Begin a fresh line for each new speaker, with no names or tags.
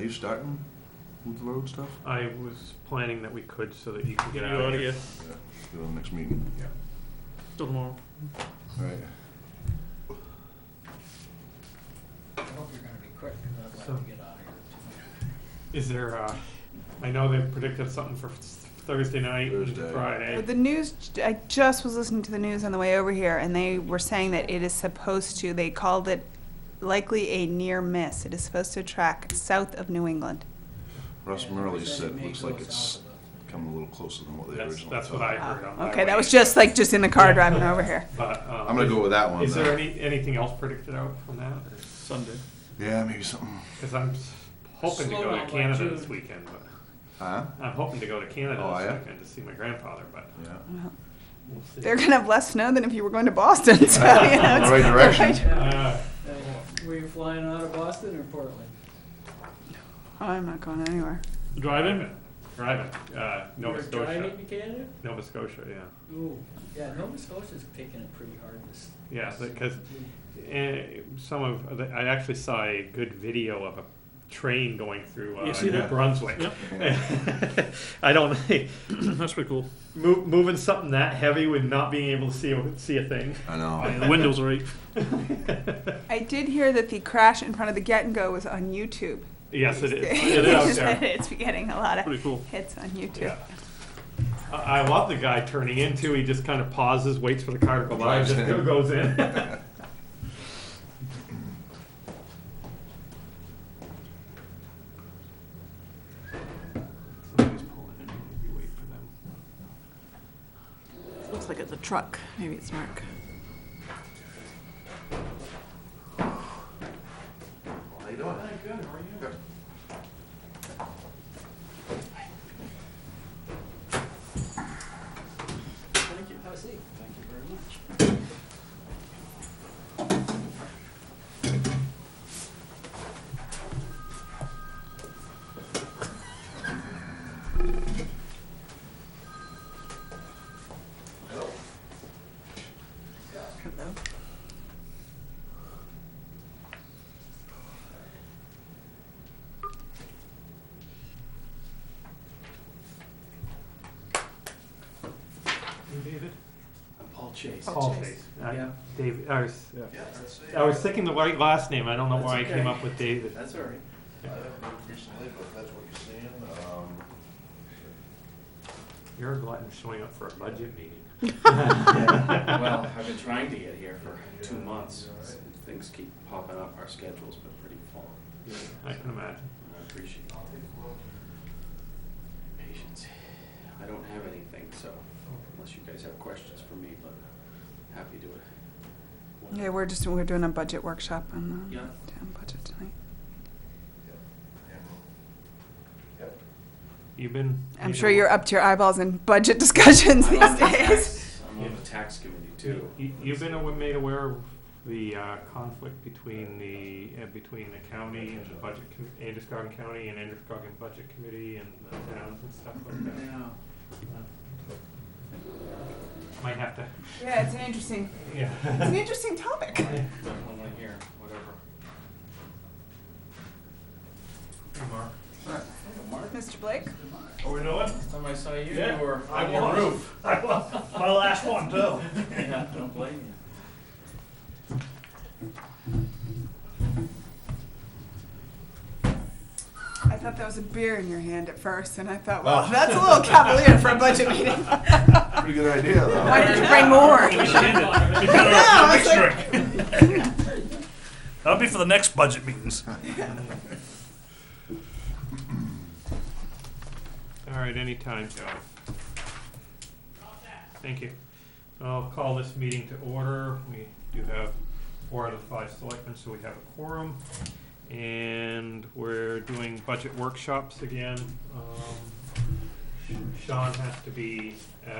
you starting with the road stuff?
I was planning that we could so that you can get
Get
out of here.
Yeah. Go to the next meeting.
Till tomorrow.
All right.
I hope you're gonna be quick, because I'd
So-
like to get out of here.
Is there, uh, I know they predicted something for Thursday night and
Thursday.
Friday.
The news, I just was listening to the news on the way over here, and they were saying that it is supposed to, they called it likely a near miss. It is supposed to track south of New England.
Russ
Yeah,
Murley
they
said,
may
looks
go
like
south
it's
of the-
coming a little closer than what they
That's,
originally
that's what I
thought.
heard on my
Okay,
way.
that was just like, just in the car driving over here.
But, um,
I'm gonna go with that one.
Is there
then.
any, anything else predicted out from that?
Sunday.
Yeah, maybe something.
Because I'm s- hoping to
Slow
go
down
to
by
Canada this
June.
weekend, but
Huh?
I'm hoping to go to Canada
Oh,
this
yeah?
weekend to see my grandfather, but
Yeah.
we'll see.
They're gonna have less snow than if you were going to Boston, so, you know. it's-
Right direction.
Uh,
Uh, Were you flying out of Boston or Portland?
Oh, I'm not going anywhere.
driving, driving, uh, Nova
You're
Scotia,
Driving to Canada?
Nova Scotia, yeah,
Ooh, yeah, Nova Scotia's taking it pretty hard this.
yeah,
this
because
week.
Eh, some of I actually saw a good video of a train going through uh,
You see
New
that?
Brunswick.
Yep.
I don't
That's pretty cool.
move, moving something that heavy with not being able to see a, see a thing.
I know.
The windows are eight.
I did hear that the crash in front of the Get and Go was on YouTube.
yes, it is. It is out
It's
there.
it's getting a lot
Pretty
of
cool.
hits on YouTube.
Yeah. I, I love the guy turning into. He just kind of pauses, waits for the car to go by, and
Drives
just
in.
goes in. Somebody's pulling in. Maybe wait for them.
Looks like it's a truck. Maybe it's Mark.
How you doing?
Good. How are you?
Thank you, have a seat. Thank you very much.
Hey, David.
I'm Paul
Oh,
Chase.
Paul Chase. Uh,
Yeah.
David. I was,
Yeah, that's it.
I was thinking the right last name. I don't know
That's
why I came
okay.
up with David.
That's all right.
I haven't moved recently, but if that's what you're seeing. Um,
You're a glutton showing up for a budget meeting.
Yeah, Well, I've been trying to get here for two months. Things keep popping up. Our schedule's been pretty full.
I can imagine.
and I appreciate all the patience. I don't have anything, so unless you guys have questions for me, but happy to.
Yeah, we're just, we're doing a budget workshop on the
Yeah.
town budget tonight.
You've been.
I'm
you
sure
know,
you're up to your eyeballs in budget discussions
I'm on
these
the
days.
tax- I'm on the tax committee too.
You, you've been awa- made aware of the uh, conflict between the uh, between the county and the budget com- Androscoggin County and Androscoggin Budget Committee and the towns and stuff like that.
Yeah.
Uh, Might have to.
Yeah, it's an interesting,
Yeah.
it's an interesting topic.
Don't wanna hear, whatever.
Mark.
Mr. Blake?
Are we doing?
Last time I saw you,
Yeah,
you were
I
on your
was.
roof.
I was. My last one, too.
Yeah, don't blame you.
I thought that was a beer in your hand at first, and I thought, well, that's a little cavalier for a budget meeting.
Pretty good idea, though.
Why didn't you bring more?
That'll
I was like,
be for the next budget meetings.
All right, anytime, Joe. Thank you. I'll call this meeting to order. We do have four out of the five selectmen, so we have a quorum. And we're doing budget workshops again. Um, Sean has to be at